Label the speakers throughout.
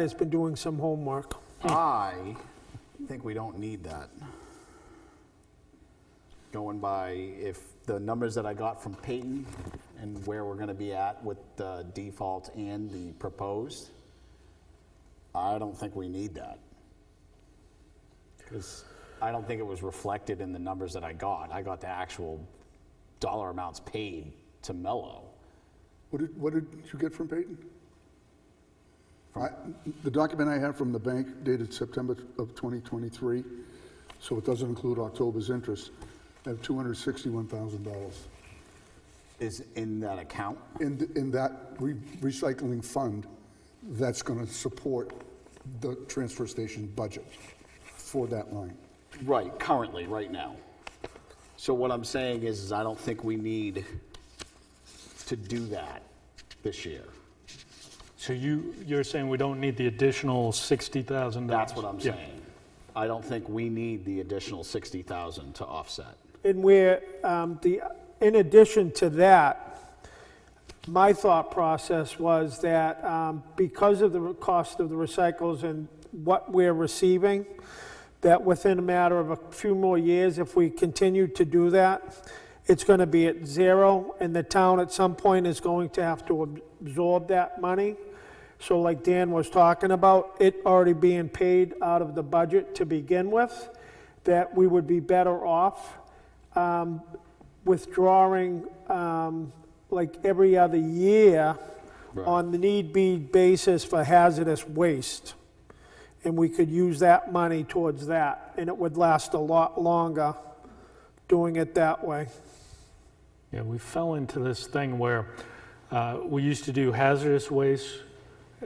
Speaker 1: has been doing some homework.
Speaker 2: I think we don't need that. Going by if the numbers that I got from Peyton and where we're gonna be at with the default and the proposed, I don't think we need that. Because I don't think it was reflected in the numbers that I got. I got the actual dollar amounts paid to Mello.
Speaker 3: What did, what did you get from Peyton? I- The document I have from the bank dated September of 2023, so it doesn't include October's interest, I have $261,000
Speaker 2: Is in that account?
Speaker 3: in, th- in that re- recycling fund that's going to support the transfer station budget for that line.
Speaker 2: Right, currently, right now. So what I'm saying is, is I don't think we need to do that this year.
Speaker 4: So you, you're saying we don't need the additional $60,000?
Speaker 2: That's what I'm
Speaker 4: Yeah.
Speaker 2: saying. I don't think we need the additional 60,000 to offset.
Speaker 1: And where, um, the, in addition to that, my thought process was that um, because of the re- cost of the recycles and what we're receiving, that within a matter of a few more years, if we continue to do that, it's going to be at zero, and the town at some point is going to have to ab- absorb that money. So like Dan was talking about, it already being paid out of the budget to begin with, that we would be better off um, withdrawing um, like every other year on the need be basis for hazardous waste. And we could use that money towards that, and it would last a lot longer doing it that way.
Speaker 4: Yeah, we fell into this thing where uh, we used to do hazardous waste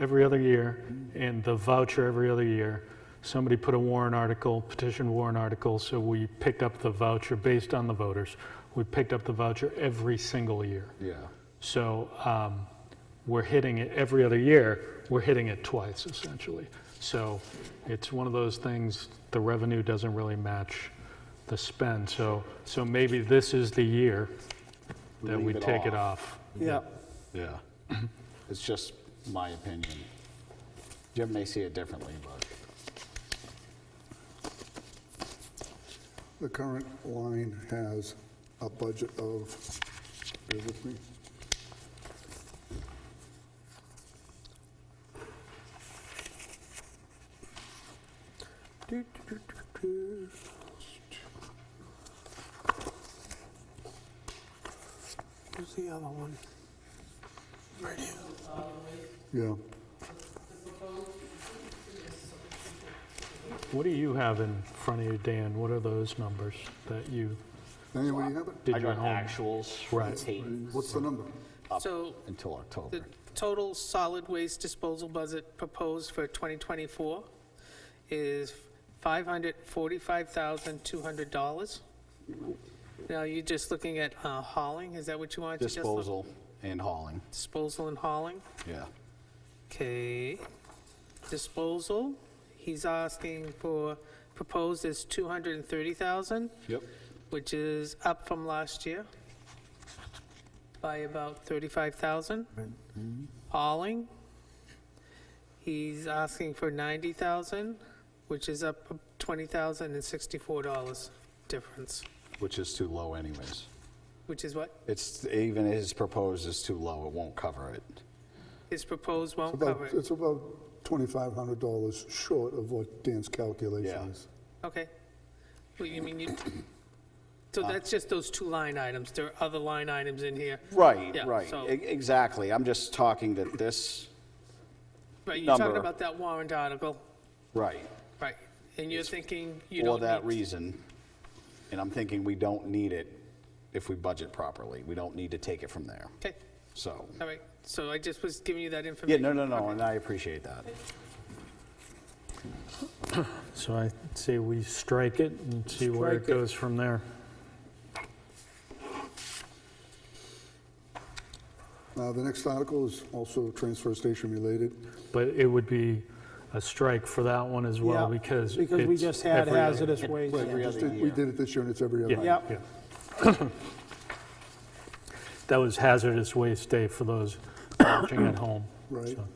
Speaker 4: every other year and the voucher every other year. Somebody put a warrant article, petition warrant article, so we picked up the voucher based on the voters. We picked up the voucher every single year.
Speaker 2: Yeah.
Speaker 4: So um, we're hitting it every other year, we're hitting it twice essentially. So it's one of those things, the revenue doesn't really match the spend. So, so maybe this is the year that we
Speaker 2: Leave it
Speaker 4: take it off.
Speaker 1: Yeah.
Speaker 2: Yeah. It's just my opinion. Jim may see it differently, but
Speaker 3: The current line has a budget of, bear with me.
Speaker 1: Who's the other one? Right here.
Speaker 3: Yeah,
Speaker 4: What do you have in front of you, Dan? What are those numbers that you
Speaker 3: anybody have it?
Speaker 4: did
Speaker 2: I
Speaker 4: your
Speaker 2: got
Speaker 4: home?
Speaker 2: actuals from
Speaker 4: Right.
Speaker 2: Tate
Speaker 3: What's the number?
Speaker 5: So
Speaker 2: until
Speaker 5: the
Speaker 2: October.
Speaker 5: total solid waste disposal budget proposed for 2024 is $545,200. Now, you're just looking at uh, hauling, is that what you wanted to just look?
Speaker 2: Disposal and hauling,
Speaker 5: Disposal and hauling,
Speaker 2: yeah.
Speaker 5: okay. Disposal, he's asking for, proposed is 230,000,
Speaker 2: Yep.
Speaker 5: which is up from last year by about 35,000. Hauling, he's asking for 90,000, which is up $20,064 difference,
Speaker 2: Which is too low anyways.
Speaker 5: which is what
Speaker 2: It's, even his proposed is too low, it won't cover it.
Speaker 5: is proposed won't
Speaker 3: About-
Speaker 5: cover it.
Speaker 3: It's about $2,500 short of what Dan's calculation
Speaker 2: Yeah.
Speaker 3: is.
Speaker 5: Okay. Well, you mean you, so that's just those two line items. There are other line items in here.
Speaker 2: Right,
Speaker 5: Yeah,
Speaker 2: right,
Speaker 5: so-
Speaker 2: E- exactly. I'm just talking that this,
Speaker 5: Right, you're talking
Speaker 2: Number.
Speaker 5: about that warrant article,
Speaker 2: right,
Speaker 5: right? And you're thinking you
Speaker 2: for
Speaker 5: don't
Speaker 2: that
Speaker 5: need,
Speaker 2: reason. And I'm thinking we don't need it if we budget properly. We don't need to take it from there,
Speaker 5: okay,
Speaker 2: so.
Speaker 5: all right. So I just was giving you that
Speaker 2: Yeah,
Speaker 5: information.
Speaker 2: no, no, no, and I appreciate that.
Speaker 4: So I say we strike it and see where it
Speaker 1: Strike it.
Speaker 4: goes from there.
Speaker 3: Uh, The next article is also transfer station related.
Speaker 4: But it would be a strike for that one as well
Speaker 1: Yeah,
Speaker 4: because it's
Speaker 1: Because we just had
Speaker 4: every other-
Speaker 1: hazardous waste.
Speaker 2: Every
Speaker 3: Just
Speaker 2: other
Speaker 3: did- We
Speaker 2: year.
Speaker 3: did it this year and it's every other.
Speaker 4: Yeah.
Speaker 3: year.
Speaker 1: Yep.
Speaker 4: yeah. That was hazardous waste day for those watching at home.
Speaker 3: Right.
Speaker 4: so.